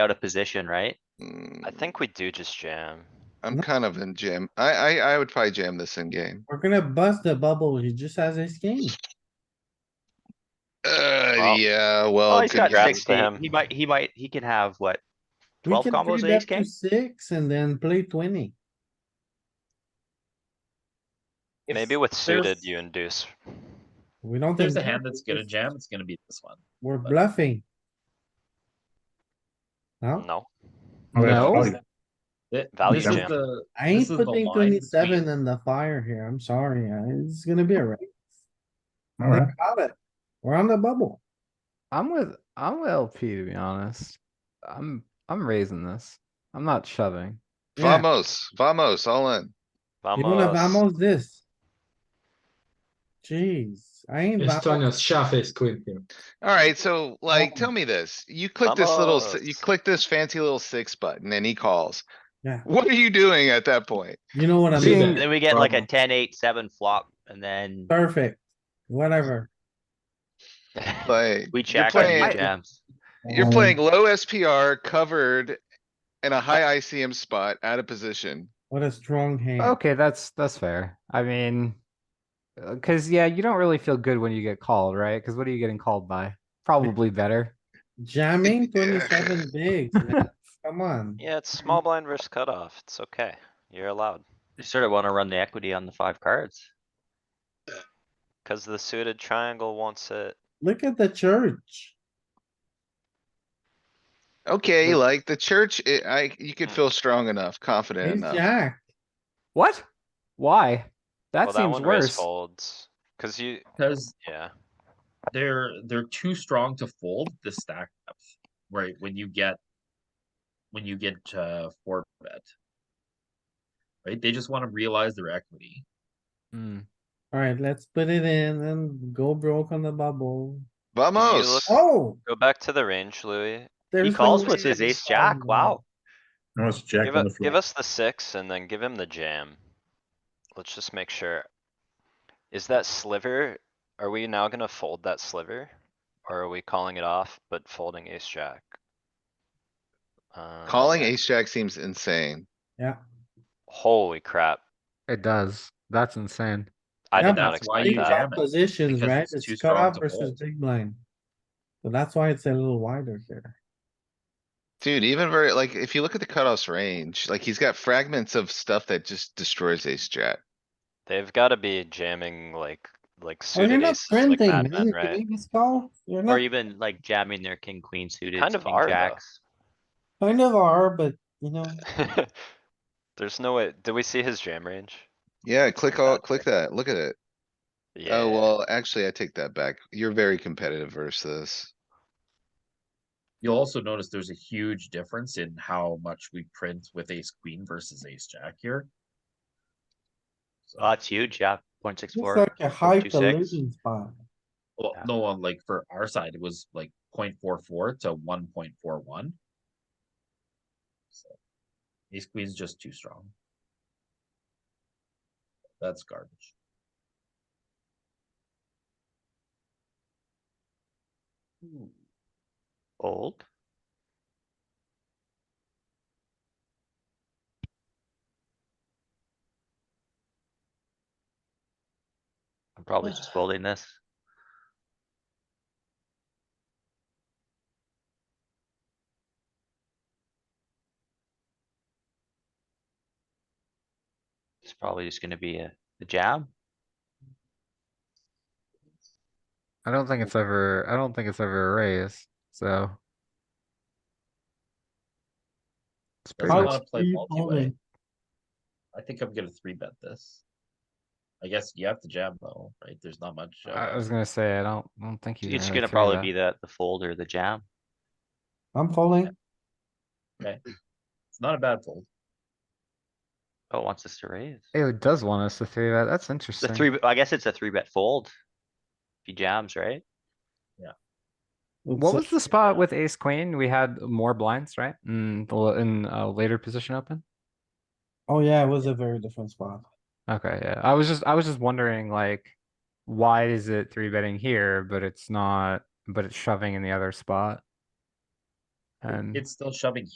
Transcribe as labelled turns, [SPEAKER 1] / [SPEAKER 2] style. [SPEAKER 1] out of position, right?
[SPEAKER 2] I think we do just jam.
[SPEAKER 3] Mm, I'm kind of in jam. I, I, I would probably jam this in game.
[SPEAKER 4] We're gonna bust the bubble. He just has his king.
[SPEAKER 3] Uh,
[SPEAKER 2] Well-
[SPEAKER 3] yeah,
[SPEAKER 1] Oh,
[SPEAKER 3] well,
[SPEAKER 1] he's got
[SPEAKER 2] congrats to
[SPEAKER 3] congrats.
[SPEAKER 1] sixty.
[SPEAKER 2] him.
[SPEAKER 1] He might, he might, he can have what?
[SPEAKER 4] We
[SPEAKER 1] 12
[SPEAKER 4] can
[SPEAKER 1] combos
[SPEAKER 4] three
[SPEAKER 1] in ace
[SPEAKER 4] bet to
[SPEAKER 1] king?
[SPEAKER 4] Six and then play twenty.
[SPEAKER 5] If
[SPEAKER 2] Maybe with
[SPEAKER 5] there's-
[SPEAKER 2] suited you induce.
[SPEAKER 4] We don't.
[SPEAKER 5] If there's a
[SPEAKER 4] think-
[SPEAKER 5] hand that's gonna jam, it's gonna be this one.
[SPEAKER 4] We're bluffing. No,
[SPEAKER 2] No,
[SPEAKER 4] Oh,
[SPEAKER 5] No. Th-
[SPEAKER 2] Value
[SPEAKER 5] This is
[SPEAKER 2] jam.
[SPEAKER 5] the,
[SPEAKER 4] I ain't
[SPEAKER 5] This is the
[SPEAKER 4] putting
[SPEAKER 5] line
[SPEAKER 4] twenty-seven
[SPEAKER 5] between-
[SPEAKER 4] in the fire here. I'm sorry. uh, It's gonna be a wreck.
[SPEAKER 6] Alright,
[SPEAKER 4] Think about it. We're on the bubble.
[SPEAKER 7] I'm with I'm with LP to be honest. I'm I'm raising this. I'm not shoving.
[SPEAKER 4] Yeah.
[SPEAKER 3] Vamos, vamos, all in.
[SPEAKER 4] You don't have
[SPEAKER 2] vamos.
[SPEAKER 4] almost this. Jeez, I ain't.
[SPEAKER 8] It's
[SPEAKER 4] vamos.
[SPEAKER 8] Tanya's shove ace queen here.
[SPEAKER 3] Alright, so like, tell me this. You click this little, s- you
[SPEAKER 2] Vamos.
[SPEAKER 3] click this fancy little six button and he calls.
[SPEAKER 4] Yeah.
[SPEAKER 3] What are you doing at that point?
[SPEAKER 4] You know what I
[SPEAKER 8] Being-
[SPEAKER 4] mean?
[SPEAKER 1] Then we get like a
[SPEAKER 8] Problem.
[SPEAKER 1] ten, eight, seven flop and then
[SPEAKER 4] Perfect. Whatever.
[SPEAKER 3] Like,
[SPEAKER 1] we check and
[SPEAKER 3] playing-
[SPEAKER 1] he jams.
[SPEAKER 3] you're
[SPEAKER 4] Um,
[SPEAKER 3] playing low SPR covered in a high ICM spot out of position.
[SPEAKER 4] What a strong hand.
[SPEAKER 7] Okay, that's that's fair. I mean, because yeah, you don't really feel good when you get called, right? Because what are you getting called by? Probably better.
[SPEAKER 4] Jamming twenty-seven bigs. man. Come on.
[SPEAKER 2] Yeah, it's small blind versus cutoff. It's okay. You're allowed.
[SPEAKER 1] You sort of wanna run the equity on the five cards.
[SPEAKER 2] Cause the suited triangle wants it.
[SPEAKER 4] Look at the church.
[SPEAKER 3] Okay, like the church, i- I, you could feel strong enough, confident
[SPEAKER 4] Ace
[SPEAKER 3] enough.
[SPEAKER 4] jack.
[SPEAKER 7] What? Why? That
[SPEAKER 2] Well, that
[SPEAKER 7] seems
[SPEAKER 2] one raise
[SPEAKER 7] worse.
[SPEAKER 2] folds. Cause you,
[SPEAKER 5] because
[SPEAKER 2] yeah,
[SPEAKER 5] they're they're too strong to fold the stack depth, right? When you get when you get uh four bet. Right? They just want to realize their equity.
[SPEAKER 7] Mm.
[SPEAKER 4] Alright, let's put it in and go broke on the bubble.
[SPEAKER 3] Vamos.
[SPEAKER 4] Oh!
[SPEAKER 2] go back to the range, Louis.
[SPEAKER 4] there's
[SPEAKER 1] He
[SPEAKER 4] no
[SPEAKER 1] calls
[SPEAKER 4] way
[SPEAKER 1] with his
[SPEAKER 4] that
[SPEAKER 1] ace
[SPEAKER 4] it's
[SPEAKER 1] jack,
[SPEAKER 4] on
[SPEAKER 1] wow.
[SPEAKER 6] now it's jack
[SPEAKER 2] Give
[SPEAKER 6] on the
[SPEAKER 2] us, give
[SPEAKER 6] floor.
[SPEAKER 2] us the six and then give him the jam. Let's just make sure. Is that sliver, are we now gonna fold that sliver? Or are we calling it off but folding ace jack? Uh,
[SPEAKER 3] Calling ace jack seems insane.
[SPEAKER 2] Holy crap.
[SPEAKER 7] It does. That's insane.
[SPEAKER 2] I
[SPEAKER 4] Yeah,
[SPEAKER 2] did not
[SPEAKER 5] that's why
[SPEAKER 4] Big
[SPEAKER 2] expect
[SPEAKER 5] you
[SPEAKER 2] that.
[SPEAKER 5] jam
[SPEAKER 4] blind
[SPEAKER 5] it,
[SPEAKER 4] Positions,
[SPEAKER 5] because
[SPEAKER 4] right?
[SPEAKER 5] it's too
[SPEAKER 4] It's
[SPEAKER 5] strong
[SPEAKER 4] cutoff
[SPEAKER 5] to
[SPEAKER 4] versus
[SPEAKER 5] fold.
[SPEAKER 4] big blind. So that's why it's a little wider here.
[SPEAKER 3] Dude, even very, like, if you look at the cutoff's range, like he's got fragments of stuff that just destroys ace jack.
[SPEAKER 2] They've gotta be jamming like, like
[SPEAKER 4] Oh, you're
[SPEAKER 2] suited
[SPEAKER 4] not
[SPEAKER 2] aces like
[SPEAKER 4] printing, man.
[SPEAKER 2] madmen,
[SPEAKER 4] Can
[SPEAKER 2] right?
[SPEAKER 4] you just call? You're
[SPEAKER 1] Or
[SPEAKER 4] not
[SPEAKER 1] even like jamming their king, queen suited,
[SPEAKER 2] Kind of
[SPEAKER 1] king
[SPEAKER 2] are, though.
[SPEAKER 1] jacks.
[SPEAKER 4] kind of are, but you know,
[SPEAKER 2] There's no way, did we see his jam range?
[SPEAKER 3] Yeah,
[SPEAKER 2] like
[SPEAKER 3] click all,
[SPEAKER 2] that.
[SPEAKER 3] click that, look at it.
[SPEAKER 2] Yeah,
[SPEAKER 3] Oh, well, actually, I take that back. You're very competitive versus this.
[SPEAKER 5] You'll also notice there's a huge difference in how much we print with ace queen versus ace jack here. So,
[SPEAKER 1] Oh, that's huge, yeah, point six
[SPEAKER 4] it's
[SPEAKER 1] four.
[SPEAKER 4] like a high
[SPEAKER 1] 0.26.
[SPEAKER 4] collision spot.
[SPEAKER 5] well,
[SPEAKER 1] yeah.
[SPEAKER 5] no, uh, like for our side, it was like 0.44 to 1.41. So, ace queen's just too strong. That's garbage. Hmm,
[SPEAKER 1] Old. I'm probably just folding this. It's probably just gonna be a, a jam.
[SPEAKER 7] I don't think it's ever. I don't think it's ever a raise. So. It's pretty
[SPEAKER 5] How-
[SPEAKER 7] much.
[SPEAKER 5] wanna play
[SPEAKER 4] Keep
[SPEAKER 5] multi-way.
[SPEAKER 4] folding.
[SPEAKER 5] I think I'm gonna three bet this. I guess you have to jam though, right? There's not much. uh,
[SPEAKER 7] I was gonna say I don't. I don't think you.
[SPEAKER 1] It's gonna probably be the, the fold or the jam.
[SPEAKER 4] I'm folding.
[SPEAKER 5] It's not a bad fold.
[SPEAKER 1] Oh, it wants us to raise.
[SPEAKER 7] It does want us to three bet. That's
[SPEAKER 1] The
[SPEAKER 7] interesting.
[SPEAKER 1] three, bet- I guess it's a three bet fold. If he jams, right?
[SPEAKER 7] What was the spot with ace queen? We had more blinds, right? In the l- in a later position open.
[SPEAKER 4] Oh yeah, it was a very different spot.
[SPEAKER 7] Okay, yeah. I was just I was just wondering like why is it three betting here, but it's not, but it's shoving in the other spot. And
[SPEAKER 5] It's still shoving